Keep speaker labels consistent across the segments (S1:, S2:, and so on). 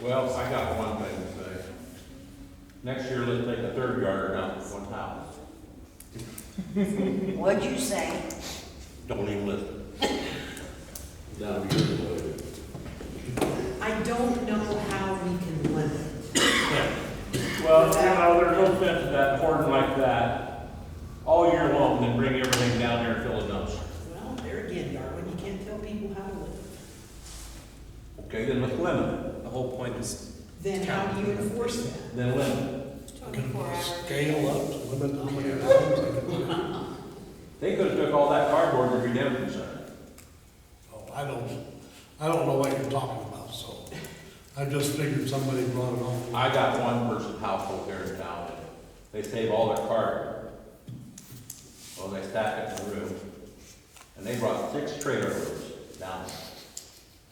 S1: Well, I got one thing to say. Next year, let's make a third yarder down to one house.
S2: What'd you say?
S1: Don't even listen.
S3: That'll be your lawyer.
S4: I don't know how we can limit.
S1: Well, you know, there's no sense of that hoarding like that all year long, then bring everything down there and fill a dumpster.
S4: Well, there again, Darwin, you can't tell people how to live.
S1: Okay, then let's limit it.
S5: The whole point is,
S4: Then how do you enforce that?
S1: Then limit it.
S2: Twenty-four hours.
S3: Scale up, limit how many items they can put.
S1: They could've took all that cardboard to redemption center.
S3: Oh, I don't, I don't know what you're talking about, so I just figured somebody brought it on.
S1: I got one person household here in town, and they save all their cardboard. Well, they stack it in the room, and they brought six trailers down,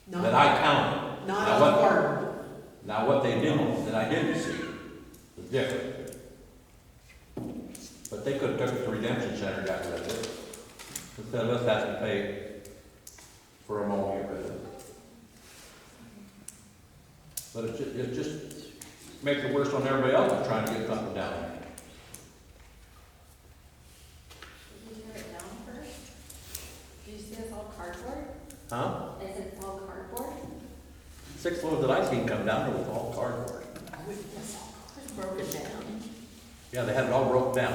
S4: Not,
S1: that I counted.
S4: not
S1: I
S4: on
S1: want-
S4: Darwin.
S1: Now, what they did, that I didn't see, was different. But they could've took it to redemption center, got rid of it, instead of us having to pay for a mowing of it. But it ju- it just makes it worse on everybody else that's trying to get something down there.
S6: Did you tear it down first? Did you see it's all cardboard?
S1: Huh?
S6: Is it all cardboard?
S1: Six loads that I seen come down there was all cardboard.
S4: I would-
S6: It's all cardboard. Broken down.
S1: Yeah, they had it all broke down.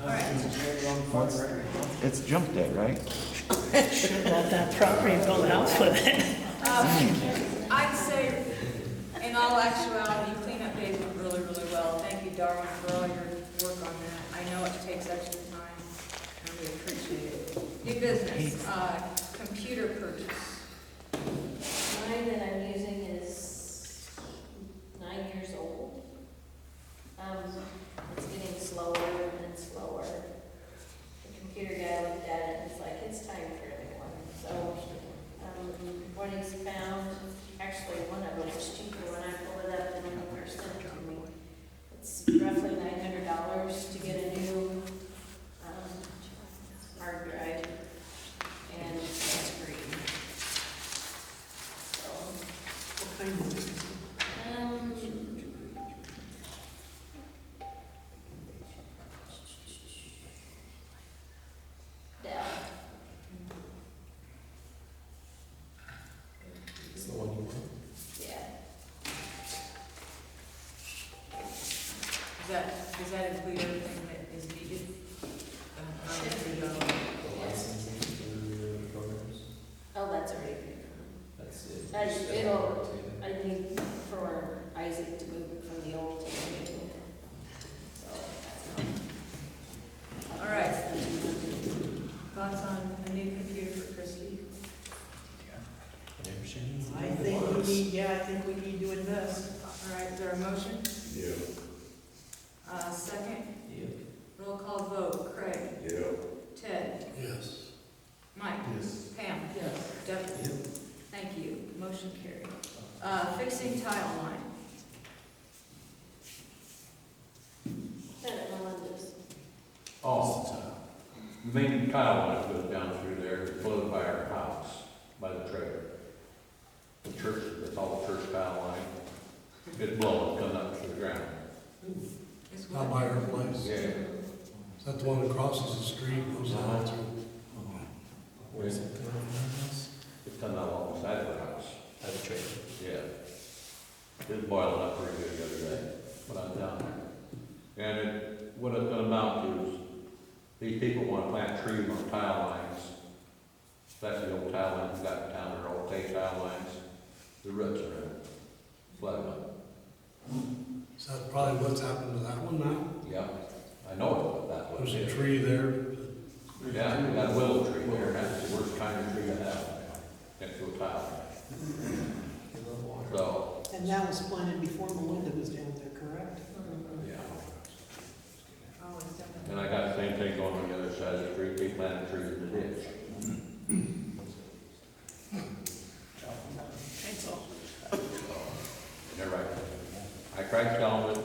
S2: All right.
S7: It's jump day, right?
S8: Let that property build out with it.
S9: Um, I'd say, in all actuality, cleanup days went really, really well. Thank you, Darwin, for all your work on that. I know it takes extra time, and we appreciate it. New business, uh, computer purchase.
S6: Mine that I'm using is nine years old. Um, it's getting slower and slower. The computer guy looked at it and was like, it's time for a new one. So, um, what he's found, actually, one of them was cheaper when I pulled it up than when first sent it to me. It's roughly nine hundred dollars to get a new, um, hard drive and a screen. So,
S4: What kind of,
S6: um, Dell.
S5: it's the one you want.
S6: Yeah.
S9: Does that, does that include everything that is needed? Um, I don't know.
S5: The licensing for your programs,
S6: Oh, that's already
S5: that's it.
S6: That's-
S5: Just
S6: it'll-
S5: update it.
S6: I need for Isaac to move it from the old to the new. So
S9: uh,
S6: that's
S9: All
S6: right.
S9: Thoughts on a new computer for Christie?
S5: Whatever she needs.
S4: I think we need, yeah, I think we need to invest.
S9: All right, is there a motion?
S3: Yeah,
S9: Uh, second,
S5: Yeah.
S9: roll call vote, Craig,
S3: yeah.
S9: Ted,
S3: Yes.
S9: Mike,
S3: Yes.
S9: Pam. Yes. Devin.
S5: Yeah.
S9: Thank you, motion carried. Uh, fixing tile line,
S6: That Melinda's.
S1: Oh, the main tile line goes down through there, it's flowed by our house, by the trailer. The church, that's all the church tile line. It's blowing, coming up to the ground.
S9: is
S3: Not
S9: what,
S3: by her place.
S1: Yeah.
S3: Is that the one that crosses the street, goes down through?
S5: Where's it coming from my house?
S1: It's coming out along the side of the house.
S5: At the trailer.
S1: Yeah. It was boiling up pretty good the other day when I was down there. And it, what it's gonna amount to is, these people wanna plant trees on tile lines. That's the old tile lines, got in town, they're old tape tile lines, the roots are in, flooded up.
S3: Is that probably what's happened to that one now?
S1: Yeah, I know it, that's what
S3: There's
S1: it
S3: a
S1: is.
S3: tree there.
S1: Yeah, we got a willow tree there, that's the worst kind of tree I have, next to a tile line. So,
S4: And that was planted before Melinda was down there, correct?
S1: yeah.
S9: oh, it's Devin.
S1: And I got the same thing going on the other side of the street, they planted trees in the ditch.
S4: That's all.
S1: They're right. I tried to tell them